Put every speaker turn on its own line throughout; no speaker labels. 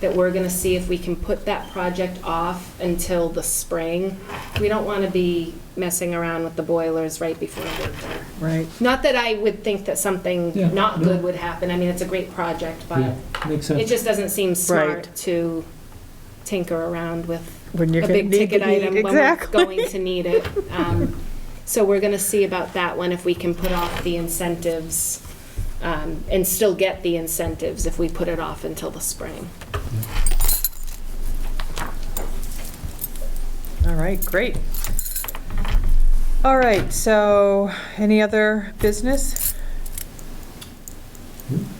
that we're gonna see if we can put that project off until the spring. We don't wanna be messing around with the boilers right before winter.
right?
Not that I would think that
Yeah,
something not
no.
good would happen, I mean, it's a great project, but
Yeah, Makes
it
sense.
just doesn't seem smart
Right.
to tinker around with
When you're
a
gonna
big
need
ticket
to need-
item when we're
exactly.
going to need it. Um, So we're gonna see about that one, if we can put off the incentives, um, and still get the incentives if we put it off until the spring.
All right, great. All right, so any other business?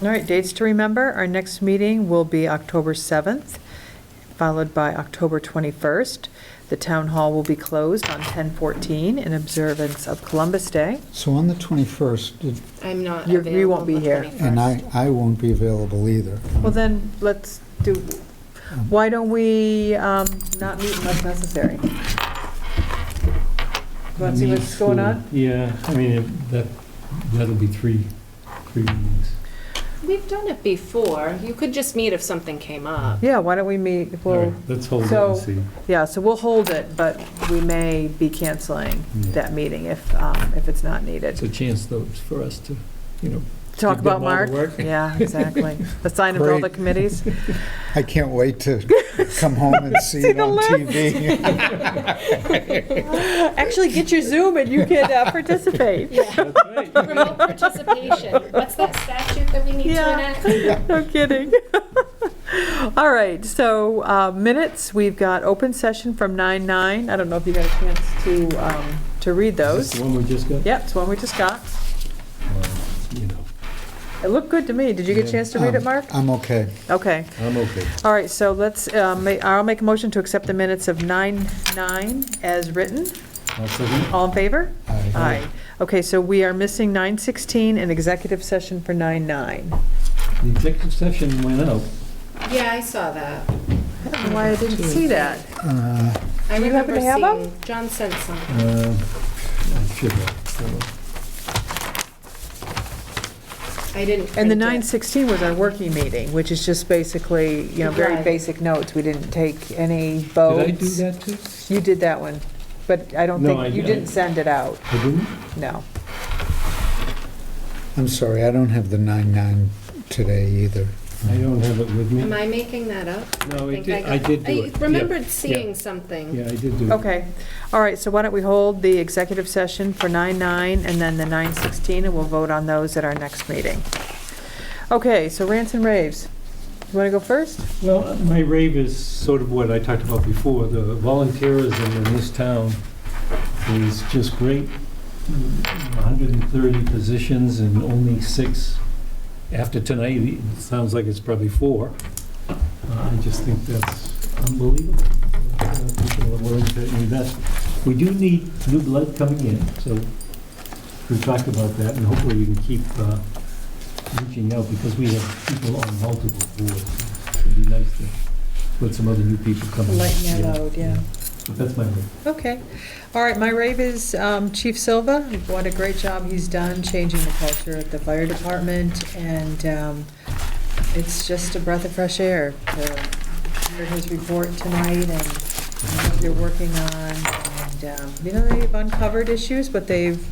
All right, dates to remember, our next meeting will be October 7th, followed by October 21st. The town hall will be closed on 10/14 in observance of Columbus Day.
So on the 21st, did-
I'm not
You- you
available.
won't be
the
here.
21st.
and I, I won't be available either.
Well, then, let's do, why don't we um, not meet unless necessary? Want to see what's going on?
Yeah, I mean, it- that, that'll be three, three meetings.
We've done it before, you could just meet if something came up.
Yeah, why don't we meet,
All
we'll
right, Let's hold it and
so-
see.
Yeah, so we'll hold it, but we may be canceling
Yeah.
that meeting if, um, if it's not
It's
needed.
a chance though for us to, you know.
Talk
give them all
about
the
Mark?
work.
Yeah, exactly. Assign him to all the
Great.
committees.
I can't wait to come home and see
See
it
the
on
list.
TV.
Actually, get your Zoom and you can uh, participate.
Remote participation, what's that statute that we need to
Yeah.
enact?
No kidding. All right, so uh, minutes, we've got open session from 9:09. I don't know if you got a chance to, um, to read those.
Is this the one we just got?
Yep, it's one we just got.
Well, You know,
It looked good to me. Did you get a chance to read it,
Um,
Mark?
I'm okay.
Okay.
I'm okay.
All right, so let's, uh, ma- I'll make a motion to accept the minutes of 9-9 as written.
I'll second.
All in favor?
Aye.
Okay, so we are missing 9:16 and executive session for 9-9.
The executive session went out.
Yeah, I saw that.
I don't know why I didn't see that.
Uh,
I
Do you happen
remember
to have 'em?
seeing, John sent something.
Uh, I should have. hold on.
I didn't
And the
print it.
9:16 was our working meeting, which is just basically, you know, very
Right.
basic notes. We didn't take any
Did I do
votes.
that too?
You did that one, but I don't
No, I-
think, you didn't send it out,
I didn't?
no.
I'm sorry, I don't have the 9-9 today either.
I don't have it with me.
Am I making that up?
No, I
think
did,
got-
I did do it.
I
Yeah,
remembered seeing something.
Yeah, I did do it.
Okay, all right, so why don't we hold the executive session for 9:09 and then the 9:16, and we'll vote on those at our next meeting. Okay, so rants and raves. You want to go first?
Well, my rave is sort of what I talked about before, the volunteerism in this town is just great. 130 positions and only six, after tonight, it sounds like it's probably four. Uh, I just think that's unbelievable. Uh, People are willing to invest. We do need new blood coming in, so we talked about that, and hopefully we can keep uh, reaching out, because we have people on multiple boards. It'd be nice to let some other new people come in.
Lighten our load, yeah.
But that's my,
Okay, all right, my rave is um, Chief Silva. What a great job he's done changing the culture at the fire department, and um, it's just a breath of fresh air to hear his report tonight and what they're working on, and, um, you know, they've uncovered issues, but they've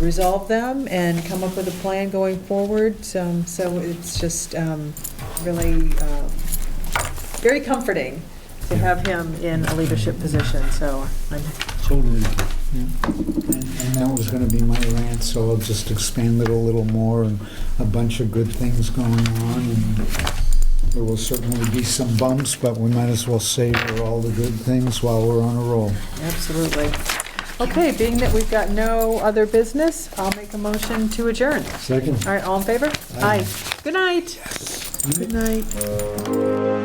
resolved them and come up with a plan going forward, so so it's just um, really um, very comforting to have him in a leadership position, so I'm
totally,
And and that was going to be my rant, so I'll just expand it a little more, and a bunch of good things going on. and There will certainly be some bumps, but we might as well savor all the good things while we're on a roll.
Absolutely. Okay, being that we've got no other business, I'll make a motion to adjourn.
second.
All right, all in favor? Aye. Good night. Good night.